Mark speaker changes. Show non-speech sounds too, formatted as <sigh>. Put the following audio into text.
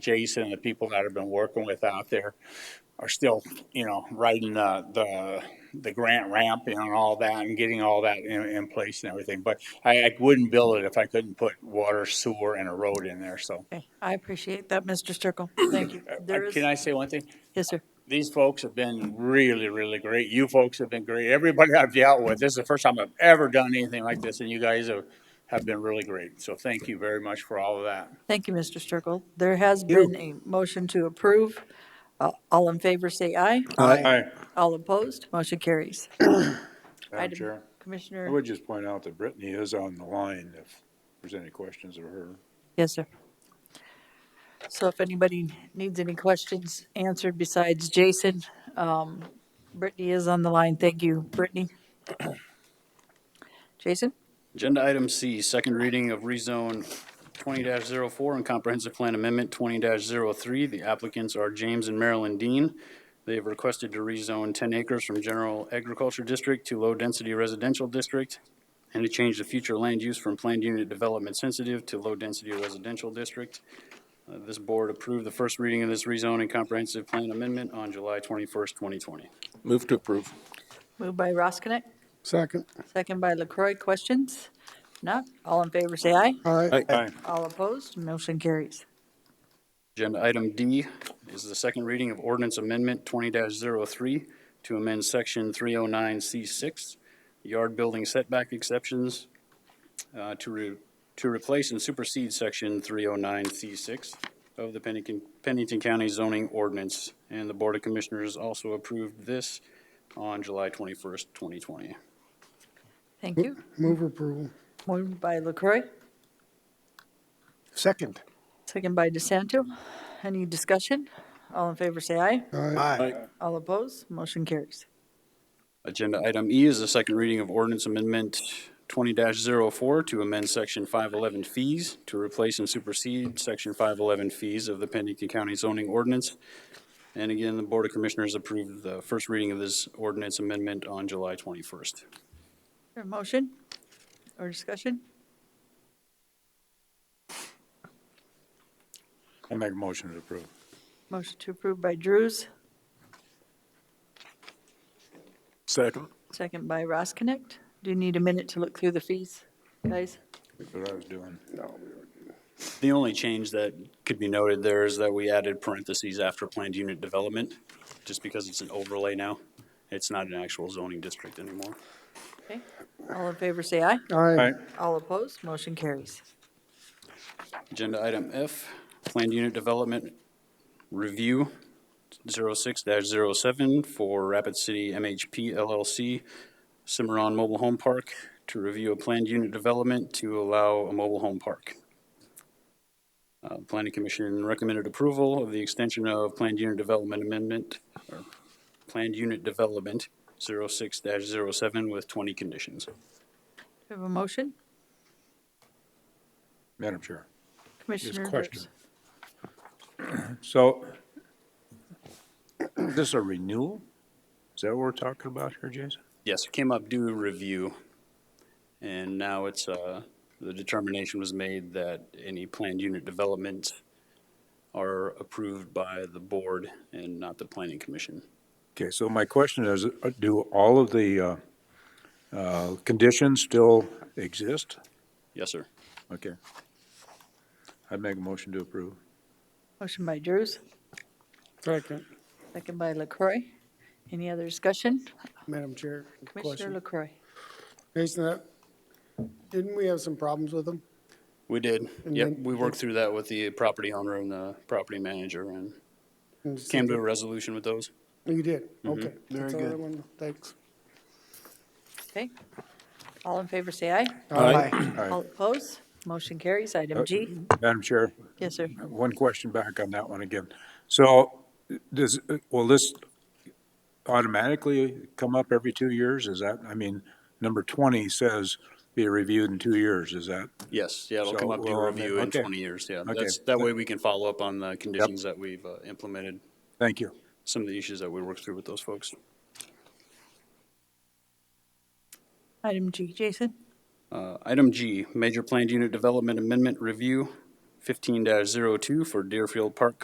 Speaker 1: Jason and the people that I've been working with out there are still, you know, riding the, the, the grant ramp and all that and getting all that in, in place and everything. But I, I wouldn't build it if I couldn't put water, sewer and a road in there, so.
Speaker 2: Okay, I appreciate that, Mr. Sturkle. Thank you.
Speaker 1: Uh,
Speaker 2: There is,
Speaker 1: Can <clears throat> I say one thing?
Speaker 2: yes, sir.
Speaker 1: These folks have been really, really great. You folks have been great. Everybody I've dealt with, this is the first time I've ever done anything like this and you guys have, have been really great. So thank you very much for all of that.
Speaker 2: Thank you, Mr. Sturkle. There has been a motion to approve. Uh, All in favor, say aye.
Speaker 1: Hi,
Speaker 2: All opposed, motion carries.
Speaker 3: <clears throat> Madam
Speaker 2: Item-
Speaker 3: Chair, I
Speaker 2: Commissioner,
Speaker 3: would just point out that Brittany is on the line if there's any questions of her.
Speaker 2: yes, sir. So if anybody needs any questions answered besides Jason, um, Brittany is on the line. Thank you,
Speaker 3: <clears throat>
Speaker 2: Brittany. Jason?
Speaker 4: Agenda item C, second reading of rezone twenty 4 and comprehensive plan amendment twenty 3 The applicants are James and Marilyn Dean. They have requested to rezone ten acres from general agriculture district to low-density residential district and to change the future land use from planned unit development sensitive to low-density residential district. Uh, This board approved the first reading of this rezone and comprehensive plan amendment on July twenty-first, twenty twenty.
Speaker 5: Move to approve.
Speaker 2: Moved by Roskinek,
Speaker 6: Second.
Speaker 2: second by LaCroy. Questions? Not? All in favor, say aye.
Speaker 6: Aye.
Speaker 3: Aye.
Speaker 2: All opposed, motion carries.
Speaker 4: Agenda item D is the second reading of ordinance amendment twenty 3 to amend section three oh nine C six, yard building setback exceptions, uh, to re, to replace and supersede section three oh nine C six of the Pennington, Pennington County zoning ordinance. And the Board of Commissioners also approved this on July twenty-first, twenty twenty.
Speaker 2: Thank you.
Speaker 6: Move approval.
Speaker 2: Moved by LaCroy,
Speaker 6: Second.
Speaker 2: second by DeSanto. Any discussion? All in favor, say aye.
Speaker 6: Aye.
Speaker 2: All opposed, motion carries.
Speaker 4: Agenda item E is the second reading of ordinance amendment twenty 4 to amend section five eleven fees to replace and supersede section five eleven fees of the Pennington County zoning ordinance. And again, the Board of Commissioners approved the first reading of this ordinance amendment on July twenty-first.
Speaker 2: A motion or discussion?
Speaker 3: I make a motion to approve.
Speaker 2: Motion to approve by Drews,
Speaker 5: Second.
Speaker 2: second by Ross Connect. Do you need a minute to look through the fees, guys?
Speaker 3: That's what I was doing.
Speaker 4: The only change that could be noted there is that we added parentheses after planned unit development, just because it's an overlay now. It's not an actual zoning district anymore.
Speaker 2: Okay. All in favor, say aye.
Speaker 6: Aye.
Speaker 2: All opposed, motion carries.
Speaker 4: Agenda item F, Planned Unit Development Review 06-07 for Rapid City MHP LLC, Cimarron Mobile Home Park, to review a planned unit development to allow a mobile home park. Uh, Planning Commission recommended approval of the extension of Planned Unit Development Amendment, or Planned Unit Development 06-07 with 20 conditions.
Speaker 2: Do you have a motion?
Speaker 3: Madam Chair.
Speaker 2: Commissioner Drews?
Speaker 3: question. So is this a renewal? Is that what we're talking about here, Jason?
Speaker 4: Yes, it came up due review, and now it's, uh, the determination was made that any planned unit developments are approved by the board and not the planning commission.
Speaker 3: Okay, so my question is, uh, do all of the uh, uh, conditions still exist?
Speaker 4: Yes, sir.
Speaker 3: Okay. I make a motion to approve.
Speaker 2: Motion by Drews,
Speaker 6: Second.
Speaker 2: second by LaCroy. Any other discussion?
Speaker 7: Madam Chair,
Speaker 2: Commissioner LaCroy?
Speaker 7: question. Jason, that, didn't we have some problems with them?
Speaker 4: We did. Yep,
Speaker 7: then-
Speaker 4: we worked through that with the property owner and the property manager and
Speaker 7: And just-
Speaker 4: came to a resolution with those.
Speaker 7: You did, okay. Very good. Thanks.
Speaker 2: Okay. All in favor, say aye.
Speaker 7: Aye.
Speaker 3: Aye.
Speaker 2: All opposed? Motion carries. Item G.
Speaker 3: Madam Chair,
Speaker 2: Yes, sir.
Speaker 3: one question back on that one again. So does, will this automatically come up every two years? Is that, I mean, number 20 says be reviewed in two years. Is that,
Speaker 4: Yes, yeah, it'll
Speaker 3: So
Speaker 4: come up
Speaker 3: we're
Speaker 4: due
Speaker 3: on the-
Speaker 4: review in
Speaker 3: okay.
Speaker 4: twenty years, yeah.
Speaker 3: Okay.
Speaker 4: That's, that way we can follow up on the conditions that we've uh, implemented,
Speaker 3: thank you.
Speaker 4: some of the issues that we worked through with those folks.
Speaker 2: Item G, Jason.
Speaker 4: Uh, Item G, Major Planned Unit Development Amendment Review fifteen 2 for Deerfield Park